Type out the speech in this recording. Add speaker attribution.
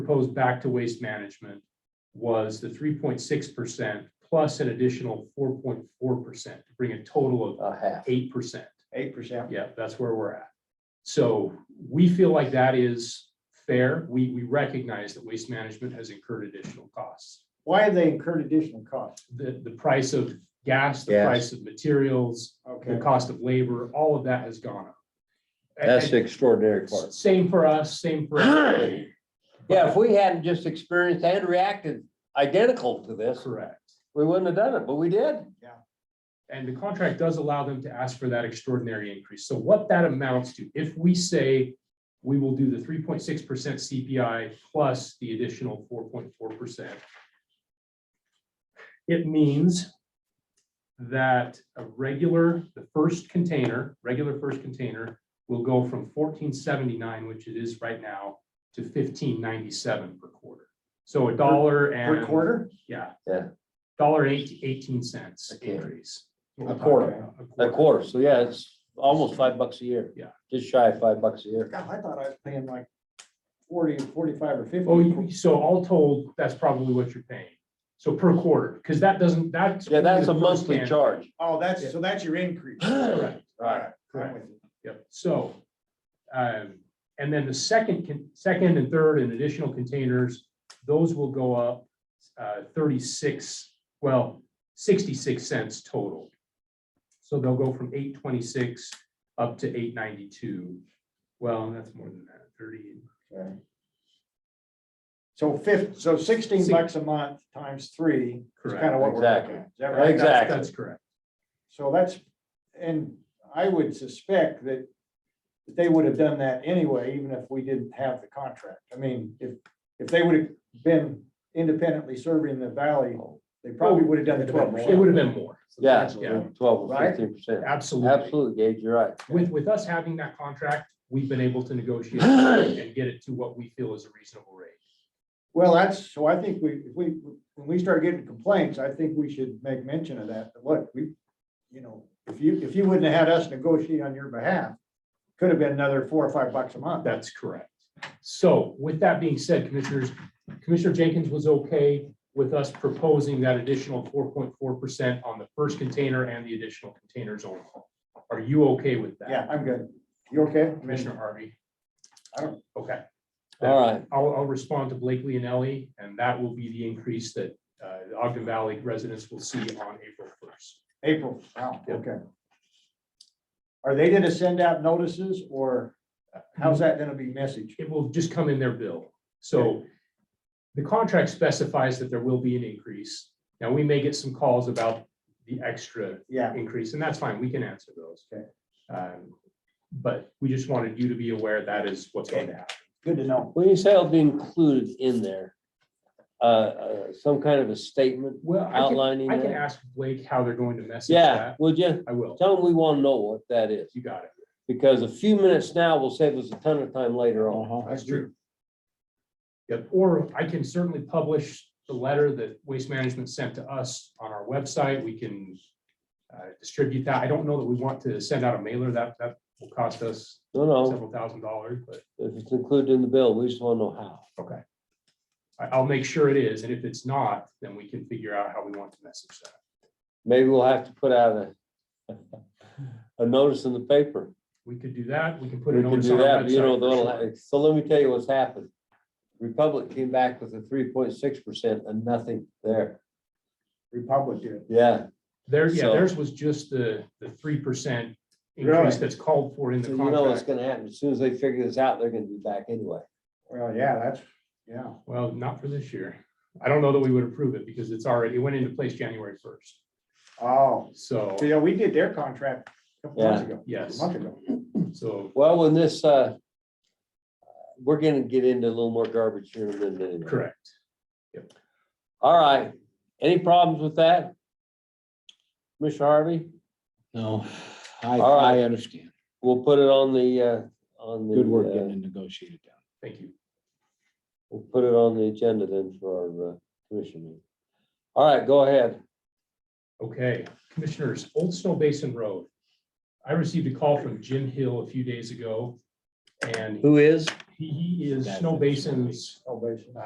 Speaker 1: proposed back to waste management was the three point six percent plus an additional four point four percent, to bring a total of
Speaker 2: a half,
Speaker 1: eight percent.
Speaker 3: eight percent.
Speaker 1: Yeah, that's where we're at. So we feel like that is fair. We, we recognize that waste management has incurred additional costs.
Speaker 3: Why have they incurred additional costs?
Speaker 1: The, the price of gas, the
Speaker 2: Gas.
Speaker 1: price of materials, the
Speaker 3: Okay,
Speaker 1: cost of labor, all of that has gone up. And-
Speaker 2: that's
Speaker 1: and
Speaker 2: the extraordinary part.
Speaker 1: Same for us, same for everybody.
Speaker 2: Yeah, if we hadn't just experienced and reacted identical to this,
Speaker 1: Correct.
Speaker 2: we wouldn't have done it, but we did.
Speaker 1: And the contract does allow them to ask for that extraordinary increase. So what that amounts to, if we say we will do the three point six percent CPI plus the additional four point four percent, it means that a regular, the first container, regular first container will go from fourteen seventy-nine, which it is right now, to fifteen ninety-seven per quarter. So a dollar and.
Speaker 3: per quarter?
Speaker 1: Yeah.
Speaker 2: Yeah.
Speaker 1: Dollar eight, eighteen cents
Speaker 2: A quarter.
Speaker 1: increase.
Speaker 3: A quarter.
Speaker 2: A quarter, so yeah, it's almost five bucks a year.
Speaker 1: Yeah.
Speaker 2: Just shy of five bucks a year.
Speaker 3: God, I thought I was paying like forty, forty-five or fifty.
Speaker 1: Oh, you- so all told, that's probably what you're paying. So per quarter, because that doesn't, that's.
Speaker 2: Yeah, that's a
Speaker 1: only the first
Speaker 2: monthly
Speaker 1: can.
Speaker 2: charge.
Speaker 3: Oh, that's, so that's your increase.
Speaker 2: Right.
Speaker 1: Correct,
Speaker 3: Alright, I'm
Speaker 1: Correct.
Speaker 3: with you.
Speaker 1: yep, so. Um, and then the second, con- second and third and additional containers, those will go up uh, thirty-six, well, sixty-six cents total. So they'll go from eight twenty-six up to eight ninety-two. Well, that's more than that, thirty,
Speaker 3: Okay. So fif, so sixteen
Speaker 1: Six-
Speaker 3: bucks a month times three is
Speaker 1: Correct.
Speaker 3: kind of what we're looking
Speaker 2: Exactly.
Speaker 3: at. Is that right?
Speaker 2: Exactly.
Speaker 1: That's correct.
Speaker 3: So that's, and I would suspect that that they would have done that anyway, even if we didn't have the contract. I mean, if, if they would have been independently serving the valley, they probably would have done the twelve
Speaker 1: It
Speaker 3: percent.
Speaker 1: Oh. would have been more,
Speaker 2: Yeah,
Speaker 1: Yeah.
Speaker 2: twelve or
Speaker 3: Right?
Speaker 2: fifteen percent.
Speaker 1: absolutely.
Speaker 2: Absolutely, Gage, you're right.
Speaker 1: With, with us having that contract, we've been able to negotiate and get it to what we feel is a reasonable rate.
Speaker 3: Well, that's, so I think we, if we, when we start getting complaints, I think we should make mention of that. But Look, we, you know, if you, if you wouldn't have had us negotiate on your behalf, could have been another four or five bucks a month.
Speaker 1: That's correct. So with that being said, Commissioners, Commissioner Jenkins was okay with us proposing that additional four point four percent on the first container and the additional containers only. Are you okay with that?
Speaker 3: Yeah, I'm good. You okay?
Speaker 1: Commissioner Harvey?
Speaker 3: I don't-
Speaker 1: Okay.
Speaker 2: All right,
Speaker 1: I'll, I'll respond to Blakely and Ellie, and that will be the increase that uh, the Ogden Valley residents will see on April first.
Speaker 3: April, wow,
Speaker 1: Yep.
Speaker 3: okay. Are they gonna send out notices or how's that gonna be messaged?
Speaker 1: It will just come in their bill. So the contract specifies that there will be an increase. Now, we may get some calls about the extra
Speaker 3: Yeah,
Speaker 1: increase, and that's fine. We can answer those.
Speaker 3: Okay.
Speaker 1: Um, But we just wanted you to be aware that is what's going to happen.
Speaker 3: good to know.
Speaker 2: when you say it'll be included in there, uh, uh, some kind of a statement
Speaker 1: Well, I can,
Speaker 2: outlining
Speaker 1: I can
Speaker 2: that?
Speaker 1: ask Blake how they're going to message
Speaker 2: Yeah,
Speaker 1: that.
Speaker 2: well, just
Speaker 1: I will.
Speaker 2: tell them we want to know what that is,
Speaker 1: You got it.
Speaker 2: because a few minutes now will save us a ton of time later on.
Speaker 1: Uh-huh.
Speaker 3: That's
Speaker 1: Yep, or I can certainly publish the letter that Waste Management sent to us on our website. We can uh, distribute that. I don't know that we want to send out a mailer. That, that will cost us
Speaker 2: No, no,
Speaker 1: several thousand dollars, but
Speaker 2: if it's included in the bill, we just want to know how.
Speaker 1: okay. I, I'll make sure it is, and if it's not, then we can figure out how we want to message that.
Speaker 2: Maybe we'll have to put out a a notice in the paper.
Speaker 1: We could do that. We can put
Speaker 2: We
Speaker 1: a
Speaker 2: can
Speaker 1: notice
Speaker 2: do
Speaker 1: on our
Speaker 2: that, you know,
Speaker 1: website. for sure.
Speaker 2: they'll- so let me tell you what's happened. Republic came back with a three point six percent and nothing there.
Speaker 3: Republican.
Speaker 2: Yeah,
Speaker 1: There, yeah,
Speaker 2: So-
Speaker 1: theirs was just the, the three percent
Speaker 3: Really?
Speaker 1: increase that's called for in
Speaker 2: so
Speaker 1: the
Speaker 2: you know what's
Speaker 1: contract.
Speaker 2: gonna happen. As soon as they figure this out, they're gonna be back anyway.
Speaker 3: Well, yeah, that's, yeah.
Speaker 1: Well, not for this year. I don't know that we would approve it because it's already, it went into place January first.
Speaker 3: Oh,
Speaker 1: So,
Speaker 3: so yeah, we did their contract a couple months ago.
Speaker 1: Yes.
Speaker 3: A month ago.
Speaker 1: so,
Speaker 2: Well, when this, uh, we're gonna get into a little more garbage here in a minute. anyway.
Speaker 1: correct.
Speaker 2: All right, any problems with that? Commissioner Harvey,
Speaker 4: No, I,
Speaker 2: All right.
Speaker 4: I understand.
Speaker 2: we'll put it on the, uh, on the.
Speaker 4: Good work
Speaker 2: uh,
Speaker 4: getting it negotiated down.
Speaker 1: Thank you.
Speaker 2: We'll put it on the agenda then for our uh, commission meeting. All right, go ahead.
Speaker 1: Okay, Commissioners, Old Snow Basin Road. I received a call from Jim Hill a few days ago and
Speaker 2: Who is?
Speaker 1: He he is
Speaker 4: That's
Speaker 1: Snow
Speaker 4: interesting.
Speaker 1: Basin's
Speaker 3: Oh, basically.